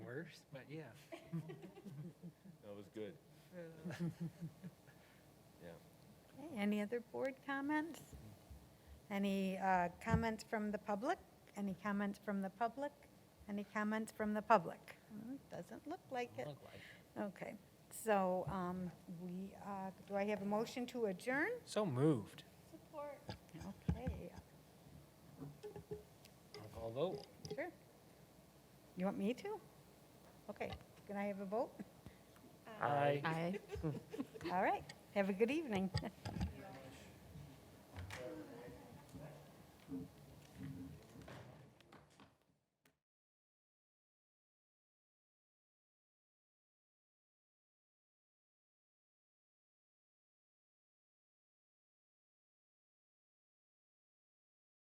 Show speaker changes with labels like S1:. S1: years, but yeah.
S2: That was good. Yeah.
S3: Okay, Any other board comments? Any uh, comments from the public? Any comments from the public? Any comments from the public? Hmm, Doesn't look like it. Okay, so um, we, uh, do I have a motion to adjourn?
S1: So moved.
S3: Okay,
S1: Although,
S3: sure. You want me to? Okay, can I have a vote?
S1: I.
S3: All right, have a good evening.